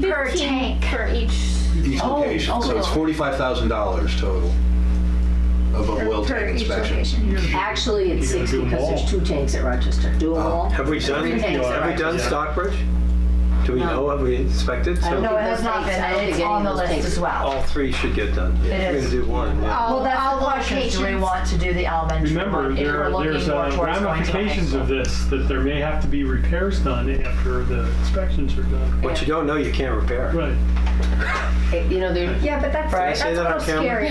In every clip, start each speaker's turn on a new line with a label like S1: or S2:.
S1: per tank.
S2: for each
S3: each
S4: Oh,
S3: location. So it's
S4: okay.
S3: forty-five thousand dollars total of a well
S2: per
S3: tank
S2: each
S3: inspection.
S2: location.
S4: Actually, it's
S5: You gotta
S4: six
S5: do 'em
S4: because
S5: all.
S4: there's two tanks at Rochester. Do them
S3: Oh.
S4: all?
S6: Have we done,
S4: Everything's
S6: have we done
S5: Yeah.
S6: Stockbridge? Do we know what we inspected?
S4: I don't
S6: So
S1: No, it has not been, and it's on the list as well.
S6: all three should get done.
S1: It
S6: We're
S1: is.
S6: gonna do one,
S2: Oh.
S6: yeah.
S1: Well, that's
S2: All
S1: the question, do we
S2: locations.
S1: want to do the elementary one?
S5: Remember,
S1: If we're
S5: there,
S1: looking
S5: there's
S1: more
S5: uh,
S1: towards going to high
S5: ramifications
S1: school.
S5: of this, that there may have to be repairs done after the inspections are done.
S6: What you don't know, you can't repair.
S5: Right.
S4: You know, there,
S2: Yeah, but that's,
S4: Right.
S2: that's
S6: Say
S2: a
S6: that on
S2: little scary.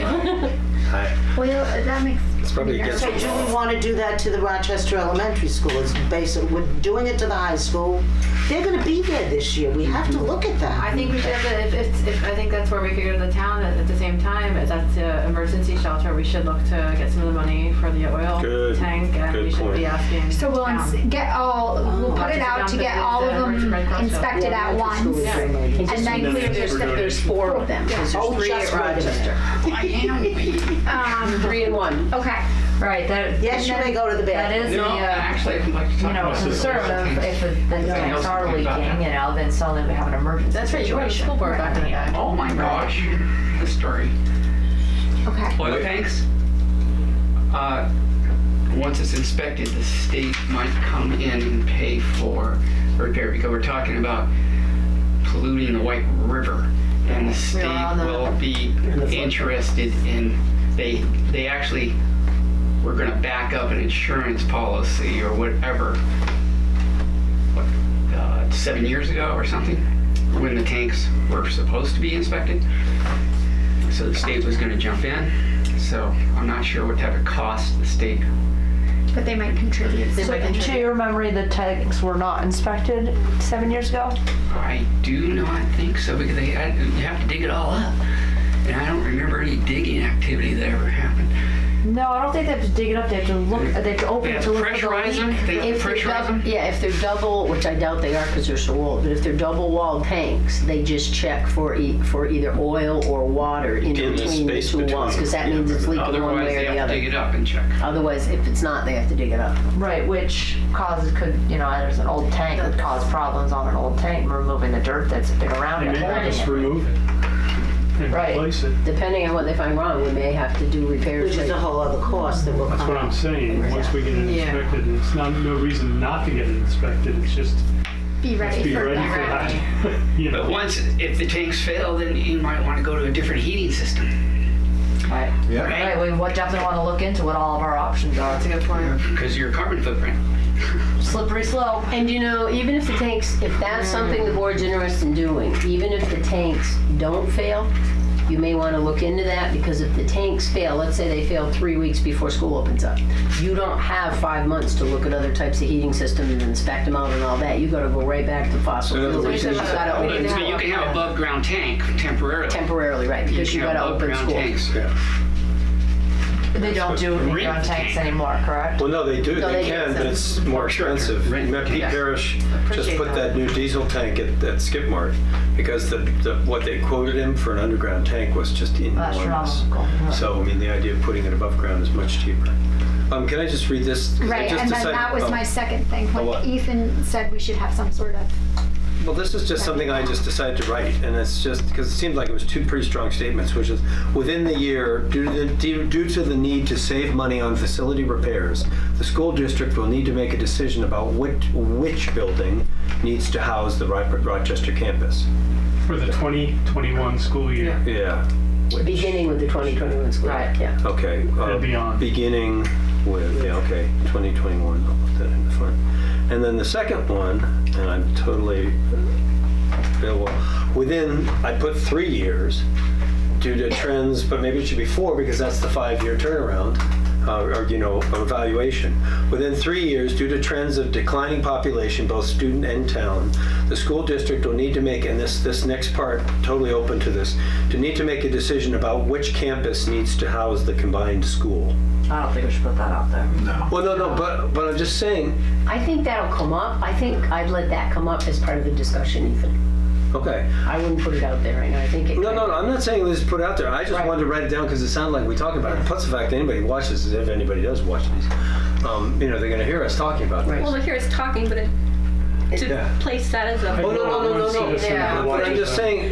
S6: Hi.
S2: Well, that makes,
S6: It's probably against
S7: So
S6: the
S7: do we
S6: law.
S7: want to do that to the Rochester Elementary School? It's basic, we're doing it to the high school. They're gonna be there this year. We have to look at
S8: I
S7: that.
S8: think we should have the, if, it's if, I think that's where we could go to the town at, at the same time, if that's the emergency shelter, we should look to get some of the money for the oil
S6: Good-
S8: tank, and we
S6: good
S8: should
S6: point.
S8: be asking.
S2: so we'll
S8: town.
S2: ins- get all, we'll put it out to get all of them inspected at once. And then
S5: Yeah.
S2: clear this,
S5: We're doing
S4: there's
S5: it.
S4: four of them. 'cause
S7: Oh,
S4: There's three
S7: just
S4: at
S7: right.
S4: Rochester.
S2: um,
S4: Three and one.
S2: okay.
S1: Right, that.
S7: Yes, you may go to the
S1: That
S7: bathroom.
S1: is the, uh,
S9: Actually, I'd like to
S1: you
S9: talk
S1: know,
S9: about this.
S1: concern of if the the tanks are leaking, you know, then suddenly we have an emergency
S8: That's right, you were at the
S1: situation.
S8: school board back in the day.
S9: Oh my gosh, the story.
S2: Okay.
S9: Oil tanks, uh, once it's inspected, the state might come in and pay for repair because we're talking about polluting the White River. And the state
S8: on that.
S9: will be interested in, they, they actually, were gonna back up an insurance policy or whatever. What, uh, Seven years ago or something, when the tanks were supposed to be inspected. So the state was gonna jump in, so I'm not sure what type of cost the state
S2: But they might contribute.
S8: They might
S10: To your memory, the tanks were not inspected seven years ago?
S9: I do not think so because they I, you have to dig it all up, and I don't remember any digging activity that ever happened.
S10: No, I don't think they have to dig it up, they have to look, they have to
S9: They
S10: open it
S9: have
S10: to look for the
S9: pressurize
S10: leak.
S9: them. They have
S4: If they're
S9: pressurize
S4: double,
S9: them.
S4: yeah, if they're double, which I doubt they are because they're so old, but if they're double walled tanks, they just check for e- for either oil or water
S6: In
S4: in
S6: the
S4: between the
S6: space
S4: two walls,
S6: between,
S4: because that
S6: yeah.
S4: means it's leaking one
S9: Otherwise,
S4: way
S9: they
S4: or the
S9: have to dig
S4: other.
S9: it up and check.
S4: Otherwise, if it's not, they have to dig it up.
S1: Right, which causes, could, you know, there's an old tank, would cause problems on an old tank, removing the dirt that's been around
S5: They
S1: it,
S5: may have
S1: holding
S5: us
S1: it.
S5: remove it and
S1: Right.
S5: replace it.
S4: Depending on what they find wrong, we may have to do repairs.
S7: Which is a
S4: later.
S7: whole other cost that will come.
S5: That's what I'm saying, once we get it
S8: Yeah.
S5: inspected, and it's not, no reason not to get it inspected, it's just
S2: Be ready
S5: be
S2: for
S5: ready for
S2: that.
S5: that. You
S9: But
S5: know,
S9: once, if the tanks fail, then you might want to go to a different heating system.
S1: Right,
S9: Right.
S1: right, we would definitely wanna look into what all of our options are.
S8: That's a good point.
S9: Because your carbon footprint.
S1: Slippery slope.
S4: And you know, even if the tanks, if that's something the board's interested in doing, even if the tanks don't fail, you may want to look into that because if the tanks fail, let's say they fail three weeks before school opens up, you don't have five months to look at other types of heating systems and inspect them out and all that. You got to go right back to fossil
S6: So in other
S4: fuels.
S6: words,
S4: because you
S8: there's-
S4: gotta
S10: Oh,
S4: open
S9: But
S8: Yeah.
S9: you can have above ground tank temporarily.
S4: temporarily, right?
S9: You
S4: Because
S9: can
S4: you
S9: have
S4: got to
S9: above
S4: open
S9: ground
S4: school.
S9: tanks.
S6: Yeah.
S1: They don't do
S9: Rent
S1: underground tanks
S9: tank.
S1: anymore, correct?
S6: Well, no, they do,
S4: No,
S6: they
S4: they
S6: can,
S4: do.
S6: but it's more
S9: Sure, sure.
S6: expensive.
S9: Right.
S6: Matt Pete
S9: Yes.
S6: Parrish just
S8: Appreciate
S6: put
S8: that.
S6: that new diesel tank at, at Skip Mart because the, the, what they quoted him for an underground tank was just enormous.
S1: Astronomical.
S6: So, I mean, the idea of putting it above ground is much cheaper. Um, can I just read this? 'Cause I
S2: Right,
S6: just
S2: and then
S6: decided-
S2: that was
S6: oh.
S2: my second thing,
S6: Oh, what?
S2: when Ethan said we should have some sort of
S6: Well, this is just something I just decided to write, and it's just, because it seemed like it was two pretty strong statements, which is, within the year, due to the, due due to the need to save money on facility repairs, the school district will need to make a decision about which, which building needs to house the Ro- Rochester campus.
S5: For the 2021 school year.
S6: Yeah,
S4: Beginning with the 2021 school.
S1: Right.
S4: Yeah.
S6: okay. uh,
S5: And beyond.
S6: Beginning with, yeah, okay, 2021, I'll put that in the front. And then the second one, and I'm totally available, within, I put three years due to trends, but maybe it should be four because that's the five-year turnaround, uh, or, you know, evaluation. Within three years, due to trends of declining population, both student and town, the school district will need to make, and this, this next part, totally open to this, to need to make a decision about which campus needs to house the combined school.
S1: I don't think we should put that out there.
S6: Well, no, no, but, but I'm just saying,
S4: I think that'll come up. I think I'd let that come up as part of the discussion, Ethan.
S6: okay.
S4: I wouldn't put it out there right now. I think it.
S6: No, no, no, I'm not saying this is put out there. I just
S4: Right.
S6: wanted to write it down because it sounded like we talk about it. Plus the fact that anybody watches, this, if anybody does watch these, um, you know, they're going to hear us talking about this.
S4: Right.
S2: Well, here it's talking, but it
S6: Yeah.
S11: to place that as a.
S6: Oh, no, no, no, no, no.
S8: Yeah.
S6: But I'm just saying,